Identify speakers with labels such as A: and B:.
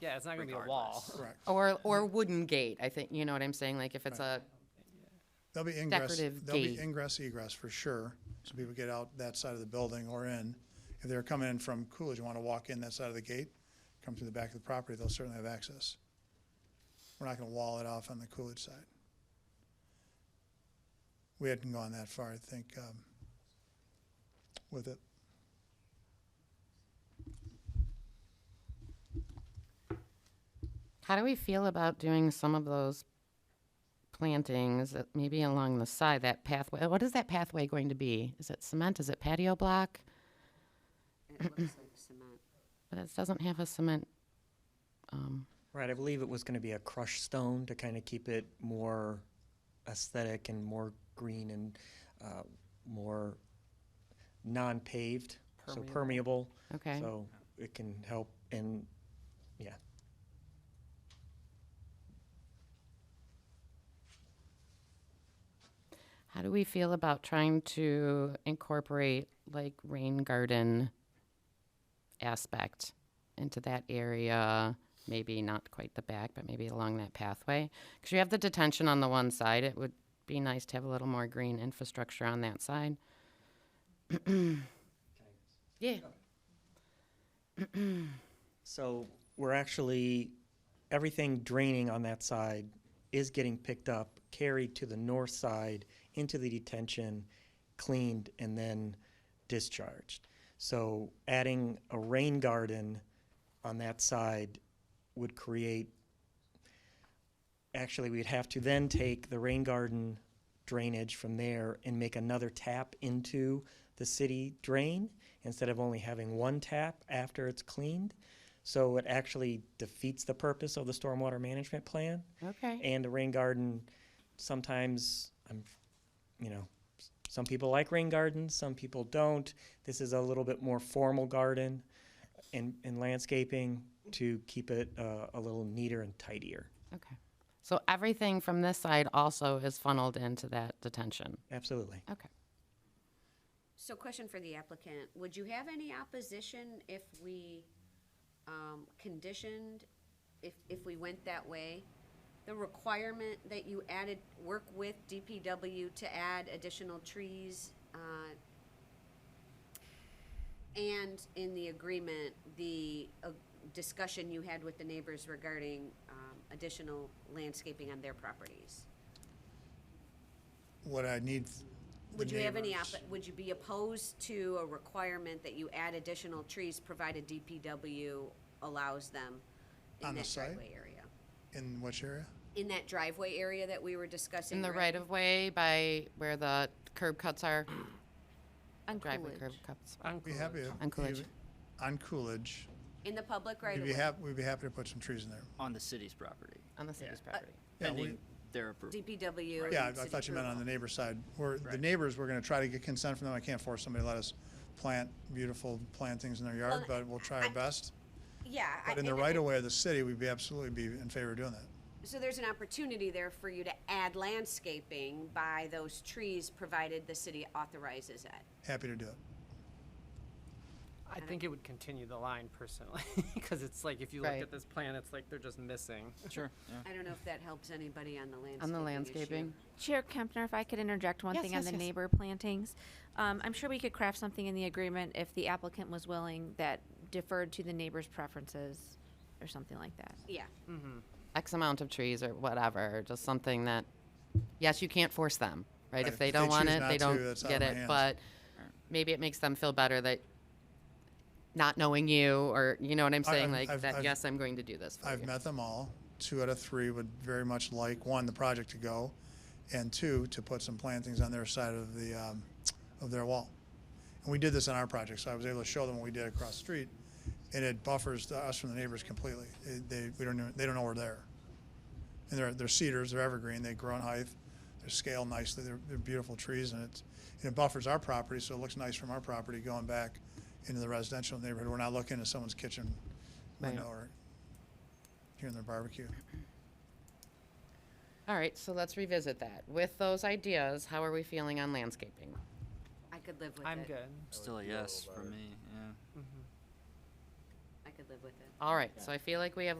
A: Yeah, it's not gonna be a wall.
B: regardless.
C: Correct.
D: Or, or wooden gate, I think, you know what I'm saying, like if it's a,
C: There'll be ingress,
D: Decorative
C: there'll be
D: gate.
C: ingress egress for sure, so people get out that side of the building or in. If they're coming in from Coolidge, and want to walk in that side of the gate, come through the back of the property, they'll certainly have access. We're not going to wall it off on the Coolidge side. We hadn't gone that far, I think, um, with it.
D: how do we feel about doing some of those plantings, that maybe along the side, that pathway, what is that pathway going to be? Is it cement, is it patio block?
E: It looks like cement.
D: But it doesn't have a cement, um,
F: Right, I believe it was going to be a crushed stone to kind of keep it more aesthetic and more green and uh, more non-paved, so permeable.
D: Okay.
F: So it can help and yeah,
D: how do we feel about trying to incorporate like rain garden aspect into that area? Maybe not quite the back, but maybe along that pathway? Because you have the detention on the one side, it would be nice to have a little more green infrastructure on that side. Yeah.
F: So we're actually, everything draining on that side is getting picked up, carried to the north side, into the detention, cleaned, and then discharged. So adding a rain garden on that side would create, actually, we'd have to then take the rain garden drainage from there and make another tap into the city drain instead of only having one tap after it's cleaned. So it actually defeats the purpose of the stormwater management plan.
D: Okay.
F: And the rain garden, sometimes, I'm, you know, s- some people like rain gardens, some people don't. This is a little bit more formal garden and, and landscaping to keep it uh, a little neater and tidier.
D: Okay. So everything from this side also is funneled into that detention.
F: Absolutely.
D: Okay.
E: So question for the applicant, would you have any opposition if we, um, conditioned, if, if we went that way? The requirement that you added, work with DPW to add additional trees, uh, and in the agreement, the, uh, discussion you had with the neighbors regarding, um, additional landscaping on their properties?
C: What I need. the
E: Would you have any,
C: neighbors-
E: oppo- would you be opposed to a requirement that you add additional trees provided DPW allows them
C: On
E: in
C: the
E: that
C: site?
E: driveway area?
C: In which area?
E: In that driveway area that we were discussing?
D: In the right of way by where the curb cuts are,
E: On
D: driveway
E: Coolidge.
D: curb cuts.
C: Be happy. if
D: On Coolidge.
C: you- On Coolidge.
E: In the public right
C: We'd
E: of
C: be
E: way?
C: hap, we'd be happy to put some trees in there.
B: On the city's property,
D: On the city's property.
C: Yeah, we-
B: pending their approval.
E: DPW.
C: Yeah, I
E: and
C: I
E: city
C: thought you meant on the
E: approval.
C: neighbor side. We're, the
B: Right.
C: neighbors, we're gonna try to get consent from them. I can't force somebody to let us plant beautiful plantings in their yard,
E: Well,
C: but we'll try our best.
E: Yeah. I-
C: But in the
E: and-
C: right of way of the city, we'd be absolutely be in favor of doing that.
E: So there's an opportunity there for you to add landscaping by those trees provided the city authorizes it.
C: Happy to do it.
A: I think it would continue the line personally, because it's like, if you look
D: Right.
A: at this plan, it's like they're just missing.
B: Sure, yeah.
E: I don't know if that helps anybody on the landscaping
D: On the
E: issue.
D: landscaping.
G: Chair Kempner, if I could interject one
D: Yes,
G: thing on
D: yes,
G: the
D: yes.
G: neighbor plantings. Um, I'm sure we could craft something in the agreement if the applicant was willing that deferred to the neighbor's preferences or something like that.
E: Yeah.
D: X amount of trees or whatever, just something that, yes, you can't force them, right?
C: Right.
D: If they
C: If
D: don't
C: they
D: want
C: choose
D: it, they
C: not to,
D: don't
C: that's out
D: get
C: of my
D: it,
C: hands.
D: but maybe it makes them feel better that not knowing you or, you know what I'm
C: I-
D: saying?
C: I've-
D: Like
C: I've-
D: that,
C: I've-
D: yes, I'm going to do this for
C: I've
D: you.
C: met them all. Two out of three would very much like, one, the project to go, and two, to put some plantings on their side of the, um, of their wall. And we did this on our project, so I was able to show them what we did across the street, and it buffers the- us from the neighbors completely. They- They, we don't, know- they don't know we're there. And they're, they're cedars, they're evergreen, they grow in height, they're scaled nicely, they're, they're beautiful trees, and it's, and it buffers our property, so it looks nice from our property going back into the residential neighborhood. We're not looking at someone's kitchen window or hearing their barbecue.
D: All right, so let's revisit that. With those ideas, how are we feeling on landscaping?
E: I could live with it.
A: I'm good.
B: Still a yes for me, yeah.
E: I could live with it.
D: All right, so I feel like we have